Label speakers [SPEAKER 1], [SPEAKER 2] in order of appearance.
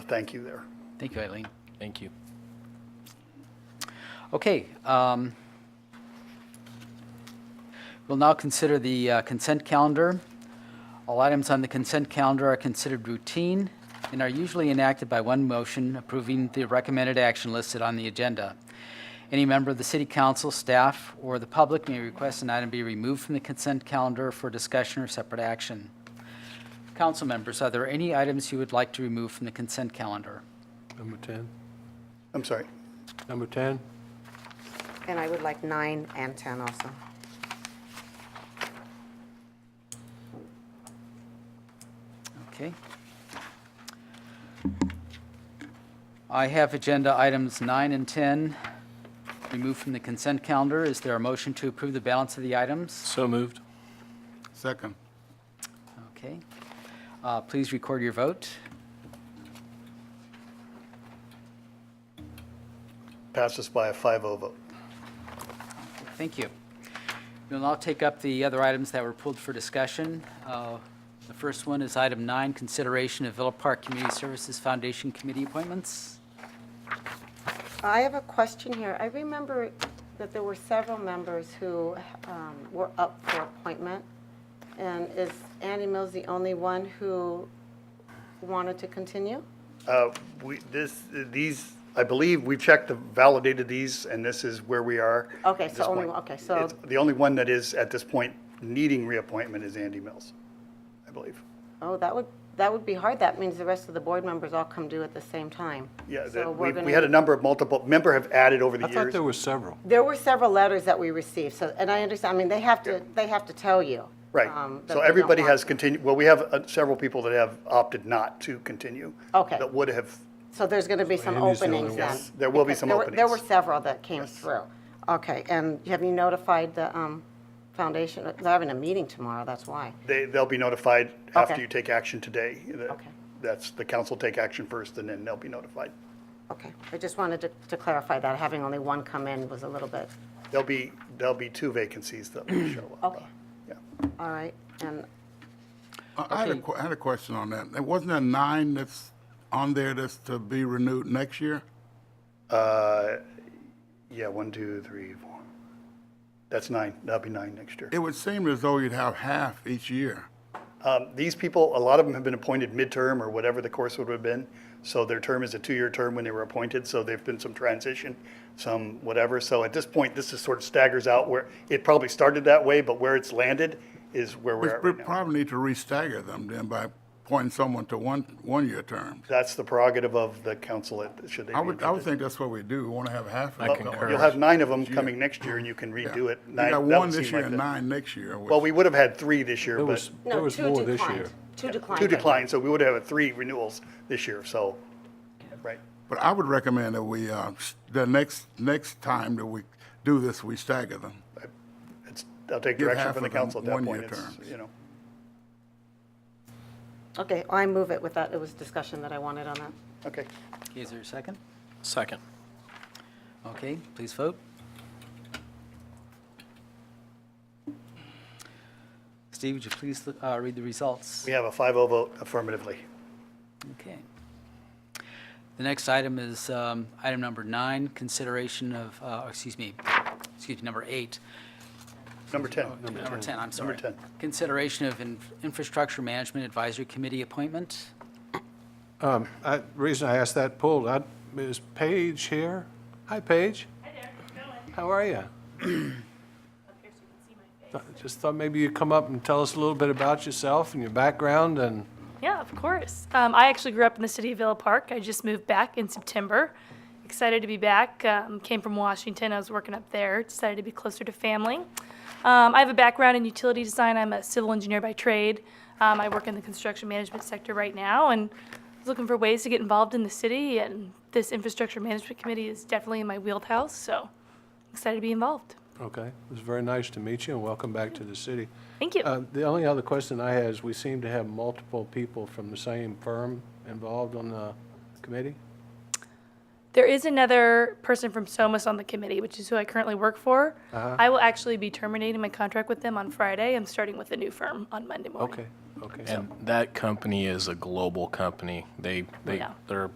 [SPEAKER 1] thank you there.
[SPEAKER 2] Thank you, Eileen.
[SPEAKER 3] Thank you.
[SPEAKER 2] Okay. um, We'll now consider the uh, consent calendar. All items on the consent calendar are considered routine and are usually enacted by one motion approving the recommended action listed on the agenda. Any member of the city council, staff, or the public may request an item be removed from the consent calendar for discussion or separate action. Council members, are there any items you would like to remove from the consent calendar?
[SPEAKER 3] Number 10.
[SPEAKER 1] I'm sorry.
[SPEAKER 3] Number 10.
[SPEAKER 4] And I would like nine and 10 also.
[SPEAKER 2] Okay. I have agenda items nine and 10 removed from the consent calendar. Is there a motion to approve the balance of the items?
[SPEAKER 3] So moved.
[SPEAKER 5] Second.
[SPEAKER 2] Okay. Uh, Please record your vote.
[SPEAKER 1] Passes by a 5-0 vote.
[SPEAKER 2] Thank you. We'll now take up the other items that were pulled for discussion. Uh, The first one is item nine, consideration of Villa Park Community Services Foundation Committee appointments.
[SPEAKER 4] I have a question here. I remember that there were several members who um, were up for appointment. And is Annie Mills the only one who wanted to continue?
[SPEAKER 1] Uh, We, this, these, I believe we checked, the validated these, and this is where we are.
[SPEAKER 4] Okay,
[SPEAKER 1] at
[SPEAKER 4] so
[SPEAKER 1] this
[SPEAKER 4] only
[SPEAKER 1] point.
[SPEAKER 4] one- okay, so-
[SPEAKER 1] It's- The only one that is at this point needing reappointment is Andy Mills, I believe.
[SPEAKER 4] Oh, that would, that would be hard. That means the rest of the board members all come due at the same time.
[SPEAKER 1] Yeah,
[SPEAKER 4] So
[SPEAKER 1] that-
[SPEAKER 4] we're
[SPEAKER 1] we,
[SPEAKER 4] gonna-
[SPEAKER 1] we had a number of multiple, member have added over the
[SPEAKER 3] I thought
[SPEAKER 1] years.
[SPEAKER 3] there were several.
[SPEAKER 4] There were several letters that we received, so, and I understand, I mean, they have to, they have to tell you. um,
[SPEAKER 1] Right,
[SPEAKER 4] that
[SPEAKER 1] so
[SPEAKER 4] they don't
[SPEAKER 1] everybody
[SPEAKER 4] want
[SPEAKER 1] has
[SPEAKER 4] to.
[SPEAKER 1] continued, well, we have uh, several people that have opted not to continue.
[SPEAKER 4] Okay.
[SPEAKER 1] That would have,
[SPEAKER 4] So there's going to be some
[SPEAKER 3] Andy's the only
[SPEAKER 4] openings
[SPEAKER 3] one.
[SPEAKER 4] then?
[SPEAKER 1] Yes, there will be
[SPEAKER 4] Because
[SPEAKER 1] some
[SPEAKER 4] there were- There were
[SPEAKER 1] openings.
[SPEAKER 4] several that came through. Okay, and have you notified the um, foundation? They're having a meeting tomorrow, that's why.
[SPEAKER 1] they, they'll be notified after
[SPEAKER 4] Okay.
[SPEAKER 1] you take action today. That-
[SPEAKER 4] Okay.
[SPEAKER 1] That's, the council take action first, and then they'll be notified.
[SPEAKER 4] Okay, I just wanted to- to clarify that, having only one come in was a little bit,
[SPEAKER 1] There'll be, there'll be two vacancies that will show up.
[SPEAKER 4] Okay.
[SPEAKER 1] Yeah.
[SPEAKER 4] all right, and
[SPEAKER 5] I I had a,
[SPEAKER 2] Okay.
[SPEAKER 5] que- I had a question on that. There Wasn't there nine that's on there that's to be renewed next year?
[SPEAKER 1] Uh, Yeah, one, two, three, four. That's nine, that'll be nine next year.
[SPEAKER 5] It would seem as though you'd have half each year.
[SPEAKER 1] Um, These people, a lot of them have been appointed midterm or whatever the course would have been. So their term is a two-year term when they were appointed, so there've been some transition, some whatever. So at this point, this is sort of staggers out where, it probably started that way, but where it's landed is where
[SPEAKER 5] We
[SPEAKER 1] we're at
[SPEAKER 5] we
[SPEAKER 1] right now.
[SPEAKER 5] probably need to restagger them then by appointing someone to one, one-year terms.
[SPEAKER 1] That's the prerogative of the council, at- should they be
[SPEAKER 5] I would, I would
[SPEAKER 1] interested.
[SPEAKER 5] think that's what we do. We want to have half.
[SPEAKER 3] I
[SPEAKER 5] of them.
[SPEAKER 3] concur.
[SPEAKER 1] You'll have nine of them coming next year, and you can redo it.
[SPEAKER 5] You
[SPEAKER 1] Nine-
[SPEAKER 5] got
[SPEAKER 1] that
[SPEAKER 5] one
[SPEAKER 1] would
[SPEAKER 5] this
[SPEAKER 1] seem
[SPEAKER 5] year
[SPEAKER 1] like
[SPEAKER 5] and
[SPEAKER 1] the-
[SPEAKER 5] nine next year. which-
[SPEAKER 1] Well, we would have had three this year,
[SPEAKER 3] There
[SPEAKER 1] but
[SPEAKER 3] was, there
[SPEAKER 4] no,
[SPEAKER 3] was
[SPEAKER 4] two
[SPEAKER 3] more this
[SPEAKER 4] declined.
[SPEAKER 3] year.
[SPEAKER 4] Two declined.
[SPEAKER 1] two
[SPEAKER 4] I think.
[SPEAKER 1] declined, so we would have had three renewals this year, so, right.
[SPEAKER 5] But I would recommend that we, uh, s- the next, next time that we do this, we stagger them.
[SPEAKER 1] It's, I'll take
[SPEAKER 5] Give
[SPEAKER 1] direction
[SPEAKER 5] half
[SPEAKER 1] from the
[SPEAKER 5] of them
[SPEAKER 1] council at that
[SPEAKER 5] one-year
[SPEAKER 1] point. It's,
[SPEAKER 5] terms.
[SPEAKER 1] you know,
[SPEAKER 4] Okay, I move it with that, it was discussion that I wanted on that.
[SPEAKER 1] okay.
[SPEAKER 2] Okay, Is there a second?
[SPEAKER 3] Second.
[SPEAKER 2] Okay, please vote. Steve, would you please uh, read the results?
[SPEAKER 1] We have a 5-0 vote affirmatively.
[SPEAKER 2] Okay. The next item is um, item number nine, consideration of, uh, excuse me, excuse me, number eight,
[SPEAKER 1] Number 10.
[SPEAKER 2] number 10, I'm sorry.
[SPEAKER 1] Number 10.
[SPEAKER 2] Consideration of in- Infrastructure Management Advisory Committee appointment.
[SPEAKER 3] I, reason I asked that pulled, I, is Paige here? Hi, Paige.
[SPEAKER 6] Hi there, how's it going?
[SPEAKER 3] How are you?
[SPEAKER 6] Up here so you can see my face.
[SPEAKER 3] Just thought maybe you'd come up and tell us a little bit about yourself and your background and
[SPEAKER 6] Yeah, of course. Um, I actually grew up in the city of Villa Park. I just moved back in September. Excited to be back. Um, came from Washington. I was working up there. Decided to be closer to family. Um, I have a background in utility design. I'm a civil engineer by trade. Um, I work in the construction management sector right now and was looking for ways to get involved in the city. And this infrastructure management committee is definitely in my wheelhouse. So excited to be involved.
[SPEAKER 3] Okay, it was very nice to meet you and welcome back to the city.
[SPEAKER 6] Thank you.
[SPEAKER 3] Uh, The only other question I had is, we seem to have multiple people from the same firm involved on the committee?
[SPEAKER 6] There is another person from SOMAS on the committee, which is who I currently work for. I will actually be terminating my contract with them on Friday. I'm starting with a new firm on Monday morning.
[SPEAKER 3] Okay, okay.
[SPEAKER 7] And that company is a global company. They they
[SPEAKER 6] Yeah.
[SPEAKER 7] they're